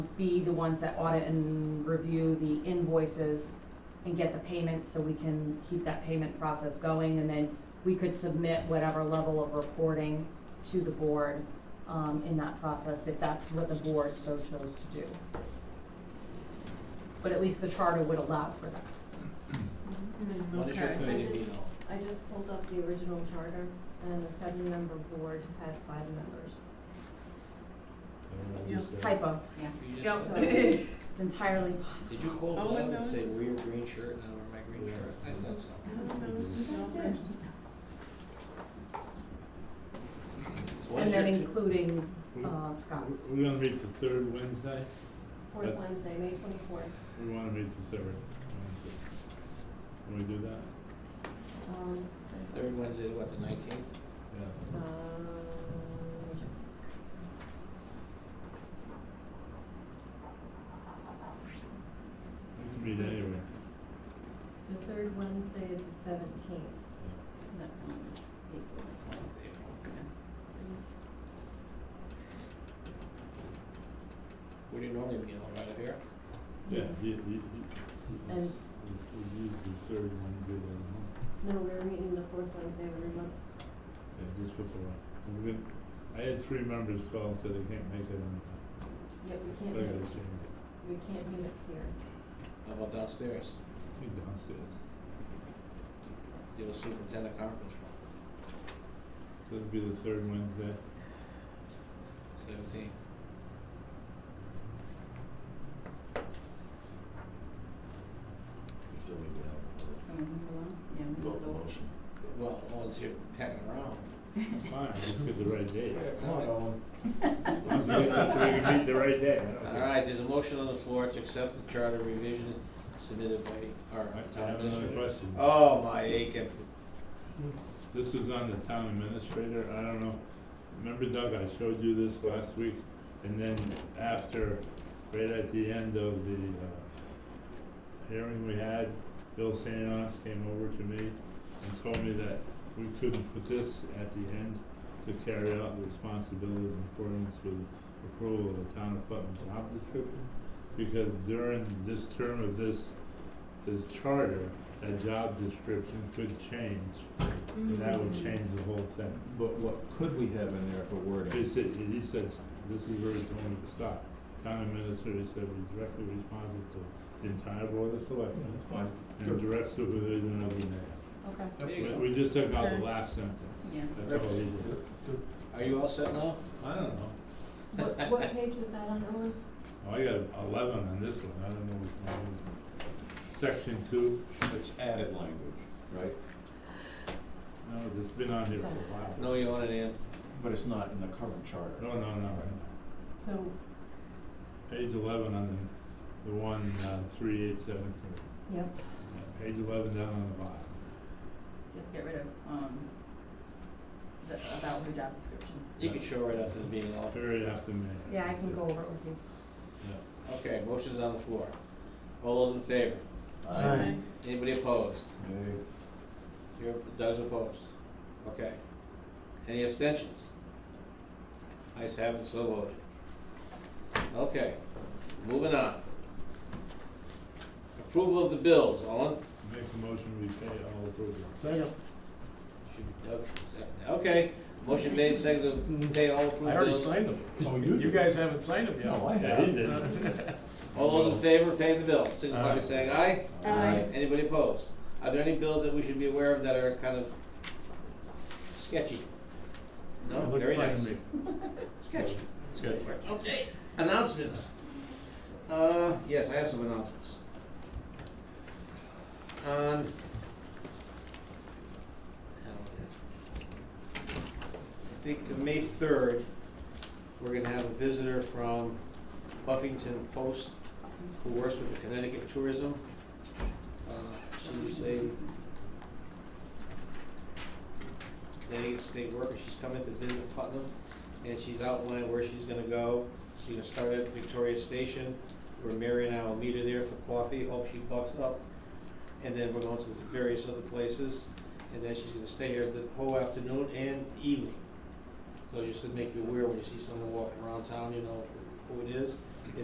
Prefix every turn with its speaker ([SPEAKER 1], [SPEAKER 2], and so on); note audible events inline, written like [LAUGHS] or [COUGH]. [SPEAKER 1] be the ones that audit and review the invoices and get the payments, so we can keep that payment process going, and then we could submit whatever level of reporting to the board, um, in that process, if that's what the board so chose to do. But at least the charter would allow for that.
[SPEAKER 2] What is your
[SPEAKER 3] Okay.
[SPEAKER 2] third
[SPEAKER 3] I just-
[SPEAKER 2] email?
[SPEAKER 3] I just pulled up the original charter, and the seven-member board had five members.
[SPEAKER 4] Yeah.
[SPEAKER 1] Typo,
[SPEAKER 2] You
[SPEAKER 4] Yep.
[SPEAKER 2] just
[SPEAKER 3] So,
[SPEAKER 2] said-
[SPEAKER 1] it's entirely possible.
[SPEAKER 2] Did you call
[SPEAKER 4] All
[SPEAKER 2] Bob
[SPEAKER 4] it
[SPEAKER 2] and say,
[SPEAKER 4] knows is-
[SPEAKER 2] wear your green shirt, and I wear my green
[SPEAKER 4] Yeah.
[SPEAKER 2] shirt? I thought so. So what
[SPEAKER 1] And
[SPEAKER 2] is your
[SPEAKER 1] then
[SPEAKER 2] two-
[SPEAKER 1] including,
[SPEAKER 4] Hmm?
[SPEAKER 1] uh, Scott's.
[SPEAKER 5] We're gonna meet the third Wednesday,
[SPEAKER 3] Fourth
[SPEAKER 5] That's-
[SPEAKER 3] Wednesday, May twenty-fourth.
[SPEAKER 5] we wanna meet the third Wednesday. Can we do that?
[SPEAKER 3] Um,
[SPEAKER 2] Third Wednesday, what, the nineteenth?
[SPEAKER 5] Yeah.
[SPEAKER 3] um,
[SPEAKER 5] We can meet anywhere.
[SPEAKER 3] the third Wednesday is the seventeenth.
[SPEAKER 2] Where do you normally begin, all right up here?
[SPEAKER 5] Yeah, he, he, he,
[SPEAKER 3] And-
[SPEAKER 5] he's, he's the third Wednesday of the month,
[SPEAKER 3] No, we're meeting the fourth Wednesday of every month.
[SPEAKER 5] yeah, just before. And we're gonna, I had three members call and said they can't make it on,
[SPEAKER 3] Yep, we can't
[SPEAKER 5] so I gotta
[SPEAKER 3] meet,
[SPEAKER 5] change it,
[SPEAKER 3] we can't meet up here.
[SPEAKER 2] How about downstairs?
[SPEAKER 5] I think downstairs,
[SPEAKER 2] Do a superintendent conference room,
[SPEAKER 5] so it'll be the third Wednesday.
[SPEAKER 2] seventeen.
[SPEAKER 4] Still need to have, vote the motion.
[SPEAKER 2] Well, no one's here pecking around.
[SPEAKER 5] Fine, let's get the right
[SPEAKER 2] [LAUGHS]
[SPEAKER 5] date.
[SPEAKER 4] Owen.
[SPEAKER 5] Let's get it so we can meet the right day, I don't
[SPEAKER 2] All
[SPEAKER 5] care.
[SPEAKER 2] right, there's a motion on the floor to accept the charter revision submitted by our
[SPEAKER 5] I I
[SPEAKER 2] town
[SPEAKER 5] have another
[SPEAKER 2] administrator.
[SPEAKER 5] question.
[SPEAKER 2] Oh, my Aiken.
[SPEAKER 5] This is on the town administrator, I don't know, remember Doug, I showed you this last week, and then after, right at the end of the, uh, hearing we had, Bill Sanos came over to me and told me that we couldn't put this at the end to carry out the responsibilities in accordance with approval of the town of Putnam job description, because during this term of this, this charter, that job description could change, and that would
[SPEAKER 3] Mm-hmm.
[SPEAKER 5] change the whole thing.
[SPEAKER 4] But what could we have in there for
[SPEAKER 5] He
[SPEAKER 4] wording?
[SPEAKER 5] said, he says, this is where he told me to stop. Town administrator said we're directly responsible to the entire board of selectmen
[SPEAKER 4] fine.
[SPEAKER 5] and direct supervision of the mayor.
[SPEAKER 1] Okay.
[SPEAKER 2] There you go.
[SPEAKER 5] We, we just took out the
[SPEAKER 4] Okay.
[SPEAKER 5] last sentence.
[SPEAKER 1] Yeah.
[SPEAKER 5] That's all he did.
[SPEAKER 2] Are you all set now?
[SPEAKER 5] I don't know.
[SPEAKER 3] What, what page was that on, Owen?
[SPEAKER 5] Oh, I got eleven on this one. I don't know which one it is. Section two,
[SPEAKER 4] It's added language, right?
[SPEAKER 5] no, it's been on here for a while.
[SPEAKER 2] No, you want it in?
[SPEAKER 4] But it's not in the current charter.
[SPEAKER 5] No, no, no.
[SPEAKER 3] So,
[SPEAKER 5] Page eleven on the, the one, uh, three eight seven two.
[SPEAKER 3] yep,
[SPEAKER 5] Page eleven down on the bottom.
[SPEAKER 6] Just get rid of, um, the, about her job description.
[SPEAKER 2] You can show right after the meeting, all.
[SPEAKER 5] Period after mayor.
[SPEAKER 1] Yeah, I
[SPEAKER 5] That's
[SPEAKER 1] can
[SPEAKER 5] it.
[SPEAKER 1] go over it with you.
[SPEAKER 2] Okay, motion's on the floor. All those in favor?
[SPEAKER 4] Aye.
[SPEAKER 2] Anybody opposed?
[SPEAKER 4] Nay.
[SPEAKER 2] You're, Doug's opposed. Okay. Any abstentions? Ayes have it, so voted. Okay, moving on. Approval of the bills, all in,
[SPEAKER 5] Make a motion, we pay all approvals.
[SPEAKER 4] Second.
[SPEAKER 2] should be Doug, second. okay, motion made, seconded, to pay all approved bills.
[SPEAKER 4] them. Oh, you? You guys haven't signed them yet. No, I
[SPEAKER 5] Yeah, he
[SPEAKER 4] [LAUGHS] have.
[SPEAKER 5] did.
[SPEAKER 2] All those in favor of paying the bills, signify by
[SPEAKER 5] Aye.
[SPEAKER 2] saying aye.
[SPEAKER 4] Aye.
[SPEAKER 2] Anybody opposed? Are there any bills that we should be aware of that are kind of sketchy? No,
[SPEAKER 5] Look
[SPEAKER 2] very
[SPEAKER 5] fine to
[SPEAKER 2] nice.
[SPEAKER 5] me.
[SPEAKER 2] Sketchy.
[SPEAKER 5] Sketchy.
[SPEAKER 2] Okay, announcements. Uh, yes, I have some announcements. On. I think the May third, we're gonna have a visitor from Buffington Post who works with the Connecticut Tourism. Uh, she's a Connecticut state worker, she's coming to visit Putnam, and she's outlined where she's gonna go. She's gonna start at Victoria Station, where Mary and I will meet her there for coffee, hope she bucks up. And then we're going to various other places, and then she's gonna stay here the whole afternoon and evening. So just to make you aware, when you see someone walking around town, you know who it is.